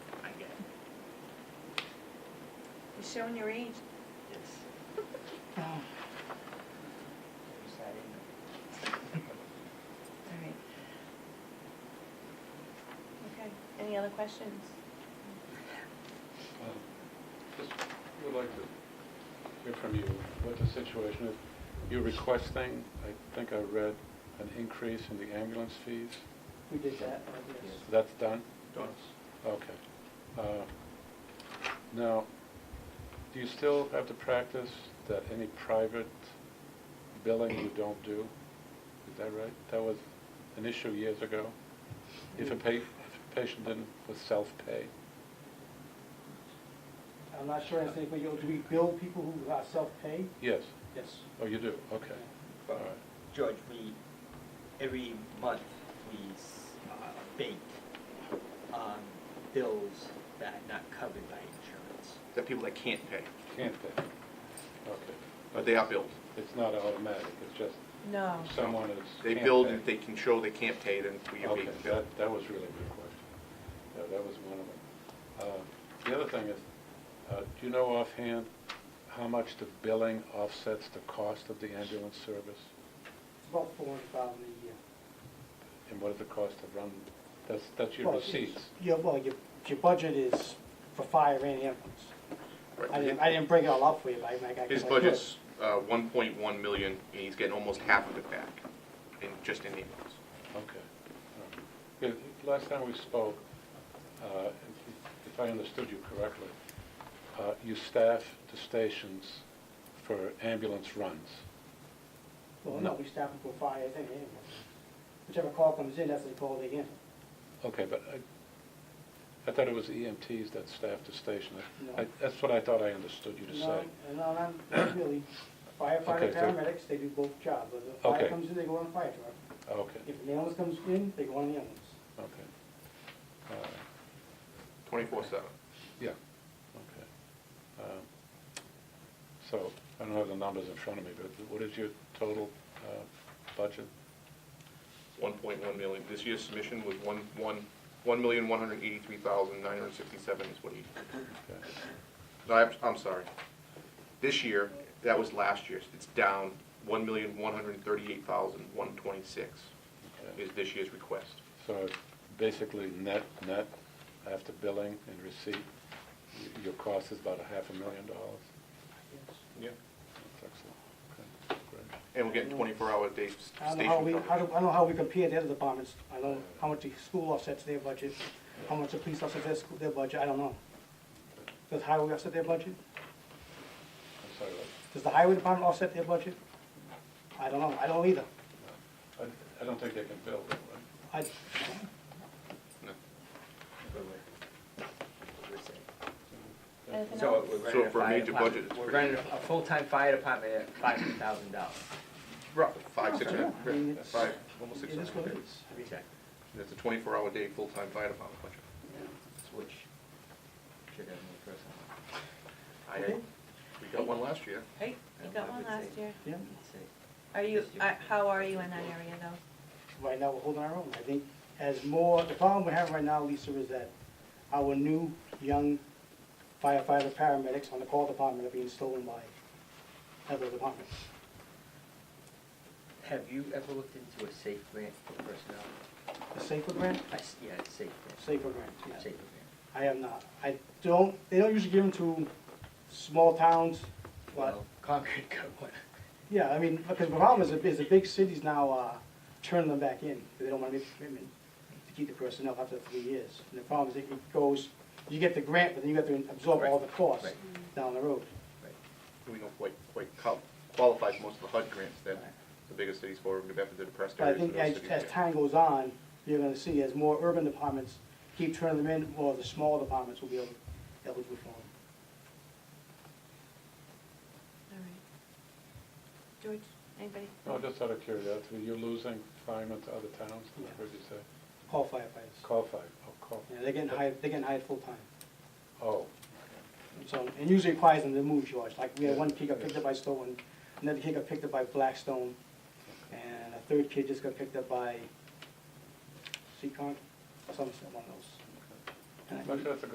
You're showing your age. All right. Okay, any other questions? Um, Just would like to hear from you what the situation is. You're requesting, I think I read, an increase in the ambulance fees. We did that, uh, yes. That's done? Done. Okay. Uh, Now, do you still have the practice that any private billing you don't do? Is that right? That was an issue years ago? If a pa, if a patient didn't, was self-pay? I'm not sure, I think, we- do we bill people who are self-pay? Yes. Yes. Oh, you do? Okay. All right. George, we, every month, we s- uh, bank on bills that are not covered by insurance. The people that can't pay, Can't they? Okay. but they are billed. It's not automatic, it's just No. if someone is. They can't build, pay- and if they can show they can't pay, then we Okay, abate the bill. that, that was really a good question. Yeah, that was one of them. Uh, The other thing is, uh, do you know offhand how much the billing offsets the cost of the ambulance service? It's about four hundred thousand a year. And what is the cost to run, that's, that's your Well, it's- receipts? Yeah, well, your, your budget is for fire and ambulance. I Right. didn't, I didn't break it all up for you, but I, I got. His budget's uh, one point one million, and he's getting almost half of it back, in, just in ambulance. Okay. all right. Yeah, Last time we spoke, uh, if- if I understood you correctly, uh, you staff the stations for ambulance runs. Well, no, we staff it for fire and ambulance. Whichever call comes in, that's the call they get. Okay, but I, I thought it was EMTs that staffed the station. I- No. I- That's what I thought I understood you to say. No, No, not, not really. Firefighter, Okay, so- paramedics, they do both jobs. If the fire Okay. comes in, they go on the fire truck. Okay, If an ambulance comes in, they go on the ambulance. okay. Uh, Twenty-four seven. Yeah, okay. Um, So, I don't have the numbers in front of me, but what is your total uh, budget? One point one million. This year's submission was one, one, one million, one hundred eighty-three thousand, nine hundred sixty-seven is what he, Okay. no, I'm, I'm sorry. This year, that was last year's, it's down one million, one hundred thirty-eight thousand, one twenty-six Okay. is this year's request. So basically, net, net, after billing and receipt, y- your cost is about a half a million dollars? Yes. Yeah. That's excellent. Okay, great. And we're getting twenty-four hour day s- I don't know station how we, coverage. I don't, I don't know how we compare the other departments. I know how much the school offsets their budget, how much the police offsets their, school- their budget, I don't know. Does highway offset their budget? I'm sorry, what? Does the highway department offset their budget? I don't know, I don't either. I, I don't think they can bill that, right? I, No. Anything So else? we're running a So for a fire major department- budget, it's We're pretty- running a full-time fire department at five hundred thousand dollars. Roughly, five, six Yeah, hundred, I mean, it's- five, almost it six is what it hundred. is. Every check, That's a twenty-four hour day, full-time fire department budget. which should have moved first. I, Okay. we got one last year. Hey, you got one last year. Yeah, Let's see. Are you, uh, how are you in that area though? right now, we're holding our own. I think as more, the problem we have right now, Lisa, is that our new young firefighter paramedics on the call department are being stolen by other departments. Have you ever looked into a safe grant for personnel? The safer grant, I s yeah, it's safe grant, safer grant, yes. safer grant. I have not. I don't, they don't usually give them to small towns, but, Well, Concord got one. yeah, I mean, because the problem is, the- is the big cities now, uh, turning them back in, 'cause they don't wanna make a commitment to keep the personnel after three years. And the problem is, it goes, you get the grant, but then you have to absorb all the costs Right, down the road. right. We don't quite, quite cal- qualify for most of the HUD grants that the bigger cities for, New Bedford, the depressed But I areas. think and those as, cities as get. time goes on, you're gonna see, as more urban departments keep turning them in, or the smaller departments will be able, eligible for them. All right. George, anybody? No, just out of curiosity, you're losing firemen to other towns, Yeah. I heard you say? Call firefighters. Call fire, oh, call. Yeah, they're getting hired, they're getting hired full-time. Oh, So, and usually requires them to move, George, like, we had one kid got picked up by Stone, another kid got picked up by Blackstone, and a third kid just got picked up by Seacon, some, one of those. And I think- actually, that's a